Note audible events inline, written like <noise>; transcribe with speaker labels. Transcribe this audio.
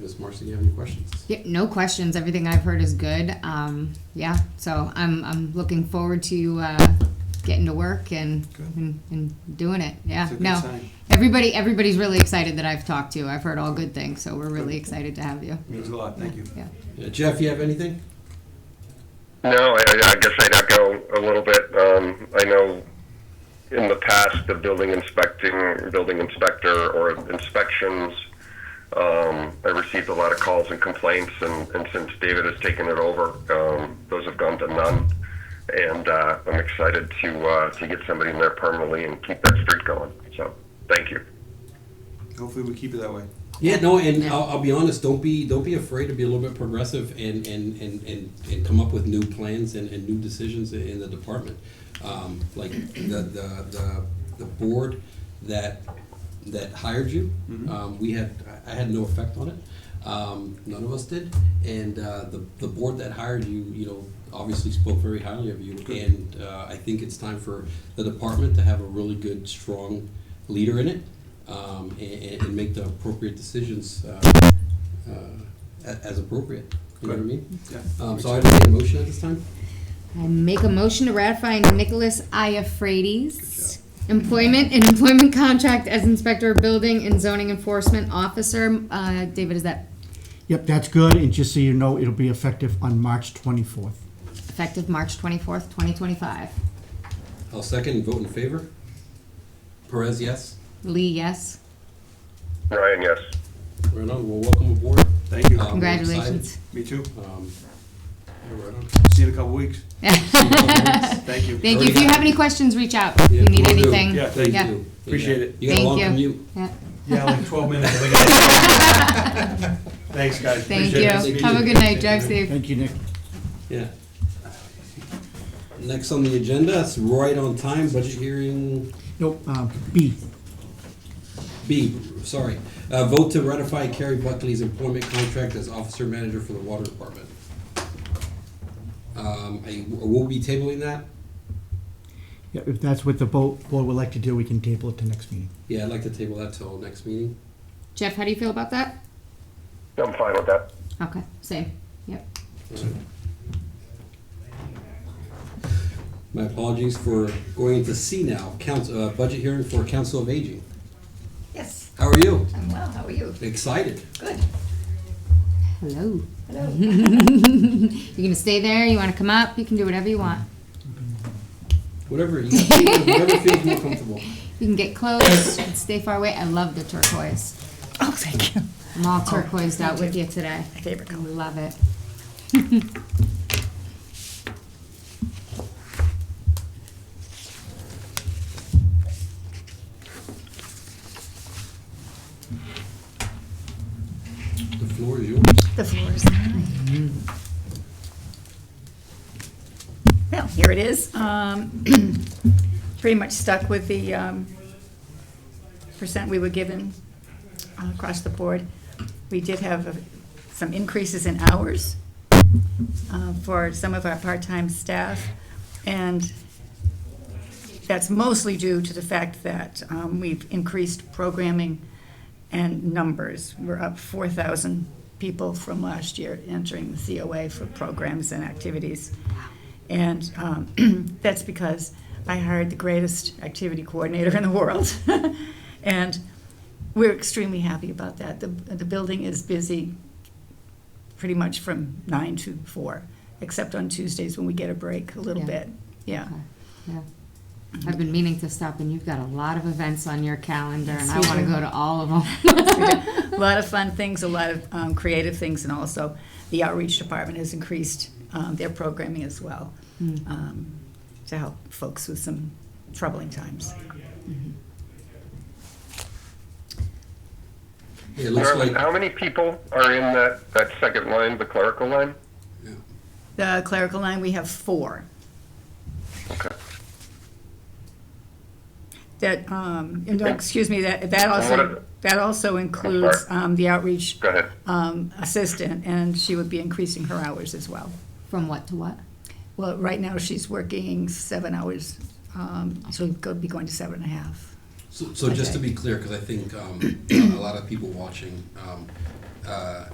Speaker 1: Ms. Marcy, you have any questions?
Speaker 2: Yeah, no questions. Everything I've heard is good. Um, yeah, so I'm, I'm looking forward to uh, getting to work and,
Speaker 1: Good.
Speaker 2: and and doing it. Yeah,
Speaker 1: It's a good
Speaker 2: no,
Speaker 1: sign.
Speaker 2: everybody everybody's really excited that I've talked to. I've heard all good things, so we're really excited to have you.
Speaker 1: Means a lot, thank you.
Speaker 2: Yeah.
Speaker 1: Uh, Jeff, you have anything?
Speaker 3: No, I, I guess I'd echo a little bit. Um, I know in the past, the building inspecting, building inspector or inspections, um, I received a lot of calls and complaints and, and since David has taken it over, um, those have gone to none. And, uh, I'm excited to, uh, to get somebody in there permanently and keep that street going. So, thank you.
Speaker 4: Hopefully, we keep it that way.
Speaker 1: Yeah, no, and I'll, I'll be honest. Don't be don't be afraid to be a little bit progressive and and and and, and come up with new plans and, and new decisions in, in the department. Um, like the, the the the board that that hired you, um, we had I I had no effect on it. Um, none of us did, and uh, the the board that hired you, you know, obviously spoke very highly of you. And uh, I think it's time for the department to have a really good, strong leader in it um, and, and- and make the appropriate decisions uh, uh, a- as appropriate. You know what I mean?
Speaker 4: Yeah.
Speaker 1: Um, so I make a motion at this time.
Speaker 2: I make a motion to ratify Nicholas Iafrades employment and employment contract as inspector of building and zoning enforcement officer. Uh, David, is that
Speaker 5: Yep, that's good, and just so you know, it'll be effective on March 24th.
Speaker 2: effective March twenty fourth, twenty twenty five?
Speaker 1: I'll second and vote in favor. Perez, yes.
Speaker 2: Lee, yes.
Speaker 3: Ryan, yes.
Speaker 1: Right on. Well, welcome aboard.
Speaker 4: Thank you.
Speaker 1: Um, we're excited.
Speaker 2: Congratulations.
Speaker 4: Me too.
Speaker 1: Um, yeah, <laughs> right on.
Speaker 4: See you in a couple weeks. Thank you.
Speaker 2: Thank you. If you have any questions, reach out. If
Speaker 1: Yeah,
Speaker 2: you need
Speaker 1: will do.
Speaker 2: anything.
Speaker 4: Yeah, thank
Speaker 2: Yeah.
Speaker 1: you.
Speaker 4: Appreciate it.
Speaker 1: You got a long
Speaker 2: Thank you.
Speaker 1: commute.
Speaker 2: Yeah.
Speaker 4: Yeah, like 12 minutes. I
Speaker 2: <laughs>
Speaker 4: think. Thanks, guys.
Speaker 2: Thank
Speaker 4: Appreciate it.
Speaker 1: Nice
Speaker 2: you.
Speaker 1: meeting
Speaker 2: Have a
Speaker 1: you.
Speaker 2: good night. Drive safe.
Speaker 5: Thank you, Nick.
Speaker 1: Yeah. Next on the agenda, it's right on time, budget hearing
Speaker 5: Nope, um, B,
Speaker 1: B, sorry. Uh, vote to ratify Carrie Buckley's employment contract as officer manager for the water department. Um, I, we'll be tabling that.
Speaker 5: Yeah, if that's what the bo- board would like to do, we can table it to next meeting.
Speaker 1: Yeah, I'd like to table that till next meeting.
Speaker 2: Jeff, how do you feel about that?
Speaker 3: I'm fine with that.
Speaker 2: Okay. Same. Yep.
Speaker 1: My apologies for going into C now, council, uh, budget hearing for Council of Aging.
Speaker 6: Yes,
Speaker 1: How are you?
Speaker 6: I'm well. How are you?
Speaker 1: Excited?
Speaker 6: Good.
Speaker 2: Hello. <laughs>
Speaker 6: Hello.
Speaker 2: You're gonna stay there. You want to come up? You can do whatever you want.
Speaker 1: Whatever, you whatever feels more comfortable.
Speaker 2: You can get close. you can stay far away. I love the turquoise.
Speaker 6: Oh, thank you.
Speaker 2: I'm all turquoised out with you today.
Speaker 6: My favorite
Speaker 2: I
Speaker 6: color.
Speaker 2: love it.
Speaker 1: The floor is yours.
Speaker 6: The floor is mine. Well, here it is. Um, <clears throat> Pretty much stuck with the um, percent we were given uh, across the board. We did have uh, some increases in hours uh, for some of our part-time staff, and that's mostly due to the fact that um, we've increased programming and numbers. We're up 4,000 people from last year entering the COA for programs and activities. And um, <clears throat> that's because I hired the greatest activity coordinator in the world. <laughs> and we're extremely happy about that. The, the building is busy pretty much from 9 to 4, except on Tuesdays when we get a break a little
Speaker 2: Yeah.
Speaker 6: bit. Yeah.
Speaker 2: Okay. Yeah. I've been meaning to stop, and you've got a lot of events on your calendar, and
Speaker 6: Yes,
Speaker 2: I
Speaker 6: we
Speaker 2: want to
Speaker 6: do.
Speaker 2: go to all of them.
Speaker 6: a lot of fun things, a lot of um, creative things, and also the outreach department has increased um, their programming as well um, to help folks with some troubling times.
Speaker 1: It looks
Speaker 3: Norman,
Speaker 1: like,
Speaker 3: how many people are in that, that second line, the clerical line?
Speaker 6: The clerical line, we have four.
Speaker 3: Okay.
Speaker 6: That, um, and, uh, excuse me, that, that also, that also includes um, the outreach
Speaker 3: Go ahead.
Speaker 6: um, assistant, and she would be increasing her hours as well.
Speaker 2: <laughs> From what to what?
Speaker 6: Well, right now, she's working seven hours, um, so we'll be going to seven and a half.
Speaker 1: so so just to be clear, because I think um, a lot of people watching, um, uh,